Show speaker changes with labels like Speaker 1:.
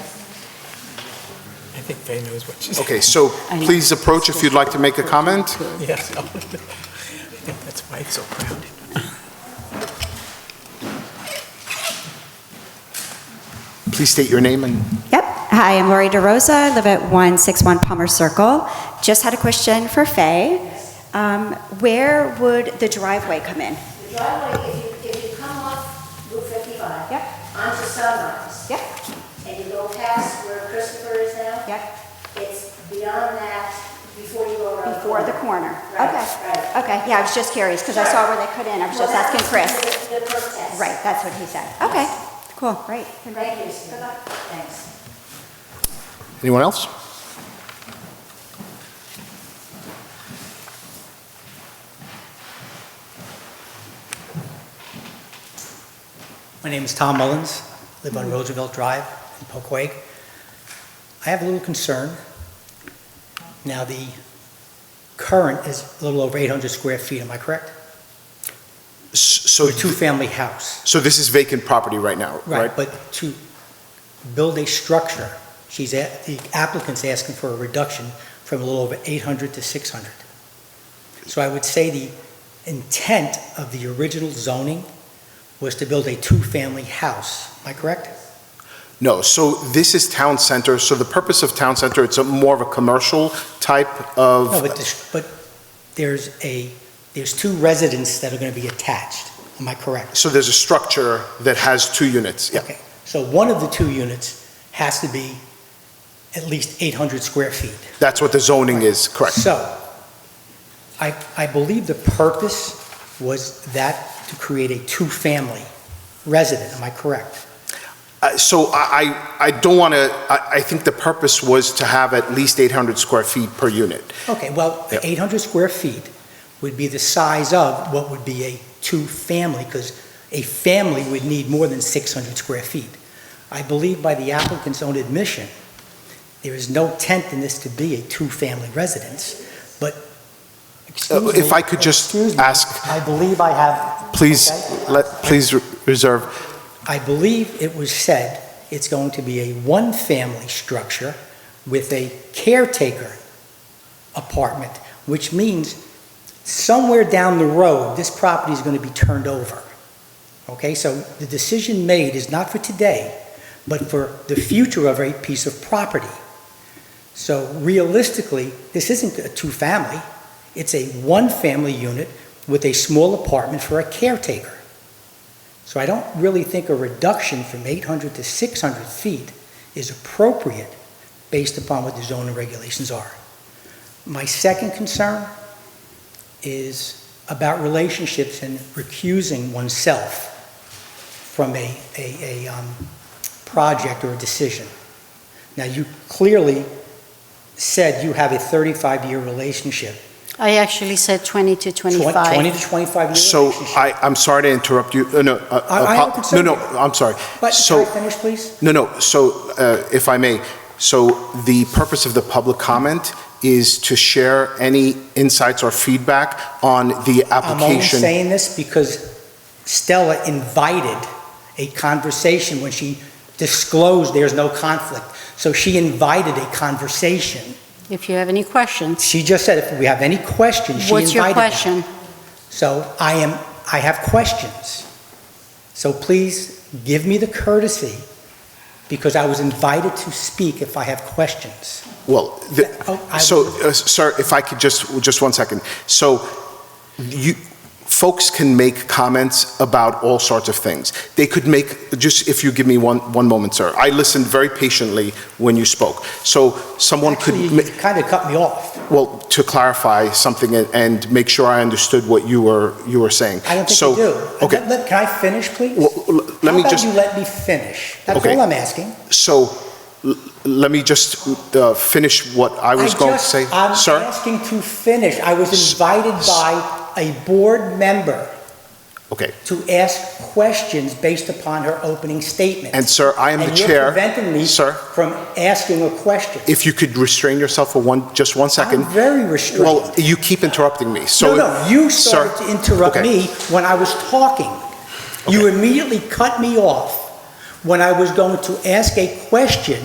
Speaker 1: think Fay knows what she's.
Speaker 2: Okay, so please approach if you'd like to make a comment.
Speaker 1: Yes. I think that's why it's so crowded.
Speaker 2: Please state your name and
Speaker 3: Yep. Hi, I'm Lori DeRosa. I live at 161 Palmer Circle. Just had a question for Faye. Um, Where would the driveway come in?
Speaker 4: The driveway, if you, if you come off Route 55.
Speaker 3: Yep.
Speaker 4: Onto Sunrise.
Speaker 3: Yep.
Speaker 4: And you go past where Christopher is now.
Speaker 3: Yep.
Speaker 4: It's beyond that, before you go around.
Speaker 3: Before the corner?
Speaker 4: Right,
Speaker 3: Okay.
Speaker 4: right.
Speaker 3: Okay, yeah, I was just curious because I saw where they cut in. I was just asking Chris.
Speaker 4: The the perk test.
Speaker 3: Right, that's what he said. Okay, cool, great.
Speaker 4: Thank you. Good luck. Thanks.
Speaker 2: anyone else?
Speaker 5: My name is Tom Mullins, live on Roosevelt Drive in Poquay. I have a little concern. Now, the current is a little over 800 square feet, am I correct?
Speaker 2: S- So,
Speaker 5: A two-family house.
Speaker 2: so this is vacant property right now, right?
Speaker 5: But to build a structure, she's, a- the applicant's asking for a reduction from a little over 800 to 600. So I would say the intent of the original zoning was to build a two-family house, am I correct?
Speaker 2: No, so this is town center, so the purpose of town center, it's a more of a commercial type of.
Speaker 5: No, but this, but there's a, there's two residences that are gonna be attached, am I correct?
Speaker 2: So there's a structure that has two units, yeah.
Speaker 5: Okay, so one of the two units has to be at least eight hundred square feet.
Speaker 2: That's what the zoning is, correct?
Speaker 5: So, I, I believe the purpose was that to create a two-family resident, am I correct?
Speaker 2: Uh, So I, I I don't want to, I, I think the purpose was to have at least 800 square feet per unit.
Speaker 5: Okay, well,
Speaker 2: Yep.
Speaker 5: eight hundred square feet would be the size of what would be a two-family, because a family would need more than six hundred square feet. I believe by the applicant's own admission, there is no intent in this to be a two-family residence, but, excuse me.
Speaker 2: Uh, if I could just
Speaker 5: excuse me,
Speaker 2: ask-
Speaker 5: I believe I have,
Speaker 2: Please,
Speaker 5: Okay.
Speaker 2: let, please re- reserve.
Speaker 5: I believe it was said it's going to be a one-family structure with a caretaker apartment, which means somewhere down the road, this property is going to be turned over. Okay, so the decision made is not for today, but for the future of a piece of property. So realistically, this isn't a two-family, it's a one-family unit with a small apartment for a caretaker. So I don't really think a reduction from 800 to 600 feet is appropriate based upon what the zoning regulations are. My second concern is about relationships and recusing oneself from a, a, a um, project or a decision. Now, you clearly said you have a 35-year relationship.
Speaker 6: I actually said 20 to 25.
Speaker 5: 20 to 25-year
Speaker 2: So uh,
Speaker 5: relationship.
Speaker 2: I, I'm sorry to interrupt you, Uh, no. uh,
Speaker 5: I- I am
Speaker 2: apo-
Speaker 5: concerned.
Speaker 2: No, no, I'm sorry.
Speaker 5: But can
Speaker 2: so-
Speaker 5: I finish, please?
Speaker 2: No, no, so uh, if I may, so the purpose of the public comment is to share any insights or feedback on the
Speaker 5: I'm only
Speaker 2: application.
Speaker 5: saying this because Stella invited a conversation when she disclosed there's no conflict. So she invited a conversation.
Speaker 6: If you have any questions,
Speaker 5: She just said if we have any questions, she
Speaker 6: what's your
Speaker 5: invited them.
Speaker 6: question?
Speaker 5: So I am, I have questions. So please give me the courtesy, because I was invited to speak if I have questions.
Speaker 2: Well, the-
Speaker 5: Oh, I-
Speaker 2: so, uh, sir, if I could just, just one second. So you, folks can make comments about all sorts of things. They could make, just if you give me one, one moment, sir. I listened very patiently when you spoke. So someone could.
Speaker 5: Actually,
Speaker 2: ma-
Speaker 5: You kind of cut me off.
Speaker 2: Well, to clarify something and- and make sure I understood what you were, you were saying.
Speaker 5: I don't think
Speaker 2: So,
Speaker 5: you do.
Speaker 2: Okay,
Speaker 5: Let- let- Can I finish, please?
Speaker 2: well, l- let me
Speaker 5: How about
Speaker 2: just,
Speaker 5: you let me finish? That's
Speaker 2: Okay.
Speaker 5: all I'm asking.
Speaker 2: so, l- let me just uh, finish what I was going to
Speaker 5: just-
Speaker 2: say.
Speaker 5: I'm
Speaker 2: Sir,
Speaker 5: asking to finish. I was
Speaker 2: S-
Speaker 5: invited
Speaker 2: s-
Speaker 5: by a board member
Speaker 2: okay,
Speaker 5: to ask questions based upon her opening statement.
Speaker 2: and sir, I am the
Speaker 5: And you're
Speaker 2: chair.
Speaker 5: preventing me
Speaker 2: Sir,
Speaker 5: from asking a question.
Speaker 2: if you could restrain yourself for one, just one second.
Speaker 5: I'm very restrained.
Speaker 2: Well, you keep interrupting me, so.
Speaker 5: No, no, you
Speaker 2: Sir,
Speaker 5: started to interrupt
Speaker 2: okay.
Speaker 5: me when I was talking. You immediately cut me off when I was going to ask a question